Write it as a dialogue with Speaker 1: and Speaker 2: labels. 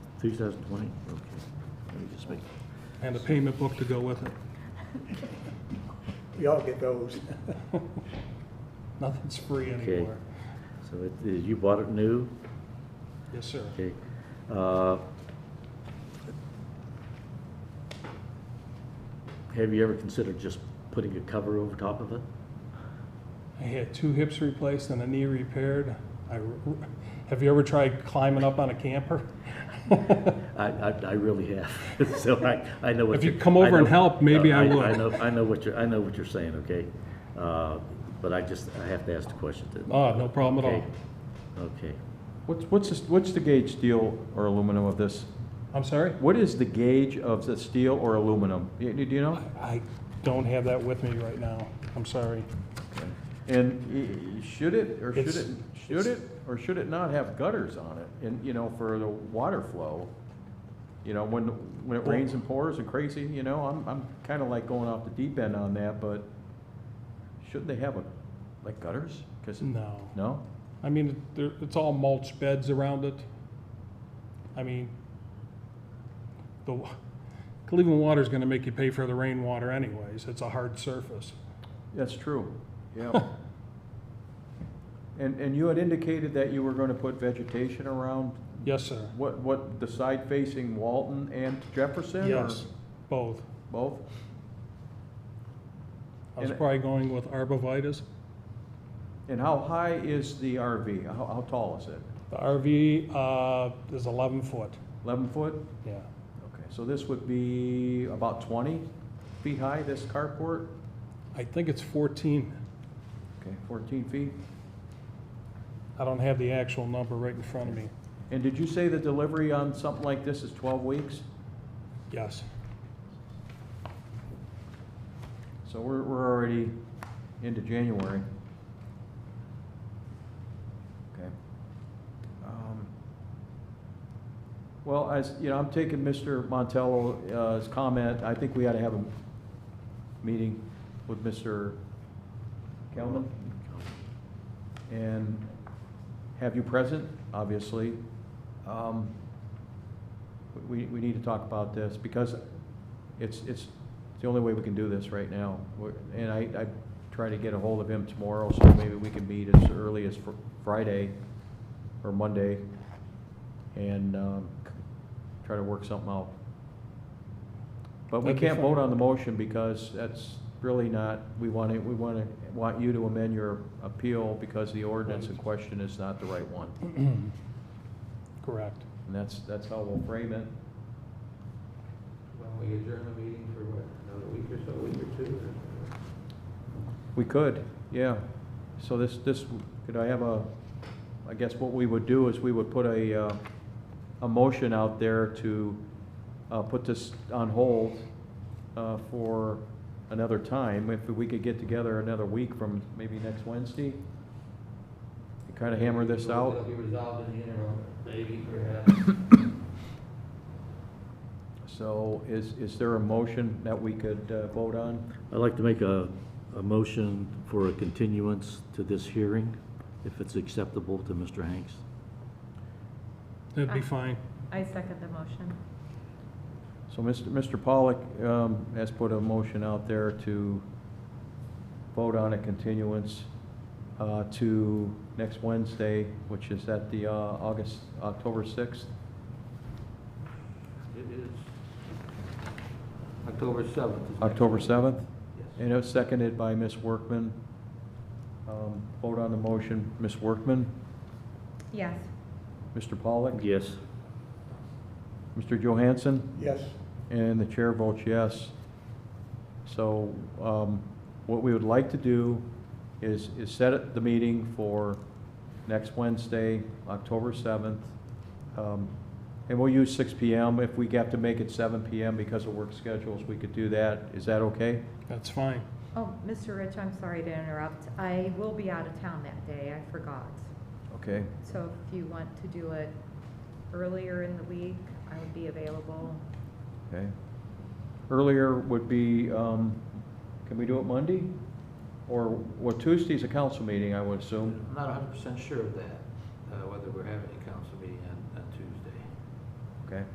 Speaker 1: 2020, okay. Let me just make,
Speaker 2: and a payment book to go with it.
Speaker 3: We all get those.
Speaker 2: Nothing's free
Speaker 1: Okay.
Speaker 2: anymore.
Speaker 1: so it is, you bought it new?
Speaker 2: Yes, sir.
Speaker 1: Okay. Uh, Have you ever considered just putting a cover over top of it?
Speaker 2: I had two hips replaced and a knee repaired. I, have you ever tried climbing up on a camper?
Speaker 1: I, I, I really have, so I, I know what
Speaker 2: If
Speaker 1: you're.
Speaker 2: you come over
Speaker 1: I know-
Speaker 2: and help, maybe
Speaker 1: uh,
Speaker 2: I
Speaker 1: I
Speaker 2: would.
Speaker 1: know, I know what you're, I know what you're saying, okay? Uh, But I just, I have to ask the question to.
Speaker 2: Oh, no problem at all.
Speaker 1: Okay. Okay,
Speaker 4: What's, what's, the- what's the gauge steel or aluminum of this?
Speaker 2: I'm sorry?
Speaker 4: What is the gauge of the steel or aluminum? Y- Do you know?
Speaker 2: I don't have that with me right now. I'm sorry.
Speaker 4: And y- should it, or should
Speaker 2: It's-
Speaker 4: it, should it, or should it not have gutters on it? And, you know, for the water flow, you know, when, when it rains and pours and crazy, you know, I'm, I'm kinda like going off the deep end on that, but shouldn't they have a, like gutters? 'Cause-
Speaker 2: No.
Speaker 4: no?
Speaker 2: I mean, there, it's all mulch beds around it. I mean, the, wa- Cleveland water's gonna make you pay for the rainwater anyways. It's a hard surface.
Speaker 4: That's true, yeah. And, and you had indicated that you were gonna put vegetation around,
Speaker 2: Yes, sir.
Speaker 4: what, what, the side facing Walton and Jefferson? or
Speaker 2: Yes, both.
Speaker 4: Both?
Speaker 2: I was
Speaker 4: And-
Speaker 2: probably going with arbovitas.
Speaker 4: And how high is the RV? How, how tall is it?
Speaker 2: The RV, uh, is eleven foot,
Speaker 4: Eleven foot?
Speaker 2: yeah.
Speaker 4: Okay, so this would be about twenty feet high, this carport?
Speaker 2: I think it's fourteen.
Speaker 4: Okay, fourteen feet.
Speaker 2: I don't have the actual number right in front of me.
Speaker 4: And did you say the delivery on something like this is twelve weeks?
Speaker 2: Yes,
Speaker 4: So we're, we're already into January. Okay. Um, Well, as, you know, I'm taking Mr. Montello's uh, comment, I think we ought to have a meeting with Mr. Kelman and have you present, obviously. Um, We, we need to talk about this, because it's, it's the only way we can do this right now. We're- And I, I try to get a hold of him tomorrow, so maybe we can meet as early as Fr- Friday or Monday and um, try to work something out. But we
Speaker 2: That'd be
Speaker 4: can't
Speaker 2: fine.
Speaker 4: vote on the motion because that's really not, we want to, we want to, want you to amend your appeal because the ordinance in question is not the right one.
Speaker 2: correct.
Speaker 4: And that's, that's how we'll frame it.
Speaker 5: Well, we adjourn the meeting for what, another week or so, week or two? or-
Speaker 4: We could, yeah. So this, this, could I have a, I guess what we would do is we would put a, uh, a motion out there to, uh, put this on hold, uh, for another time, if we could get together another week from maybe next Wednesday. Kind of hammer this
Speaker 5: It'll
Speaker 4: out,
Speaker 5: be resolved in the interim, maybe perhaps.
Speaker 4: so is, is there a motion that we could, uh, vote on?
Speaker 1: I'd like to make a, a motion for a continuance to this hearing, if it's acceptable to Mr. Hanks.
Speaker 2: That'd be fine.
Speaker 6: I second the motion.
Speaker 4: So Mr. Mr. Pollock um, has put a motion out there to vote on a continuance uh, to next Wednesday, which is at the uh, August, October 6th.
Speaker 5: It is October seventh. is next
Speaker 4: October
Speaker 5: week.
Speaker 4: 7th?
Speaker 5: Yes.
Speaker 4: And it was seconded by Ms. Workman. Um, Vote on the motion, Ms. Workman,
Speaker 6: Yes.
Speaker 4: Mr. Pollock?
Speaker 1: Yes.
Speaker 4: Mr. Johansson?
Speaker 3: Yes,
Speaker 4: And the chair votes yes. So um, what we would like to do is, is set it- the meeting for next Wednesday, October 7th. Um, And we'll use 6 PM. If we have to make it 7 PM because of work schedules, we could do that. Is that okay?
Speaker 2: That's fine.
Speaker 6: Oh, Mr. Rich, I'm sorry to interrupt. I will be out of town that day. I forgot.
Speaker 4: Okay.
Speaker 6: So if you want to do it earlier in the week, I would be available.
Speaker 4: Okay. Earlier would be, um, can we do it Monday? Or, well, Tuesday's a council meeting, I would assume.
Speaker 5: I'm not hundred percent sure of that, uh, whether we're having a council meeting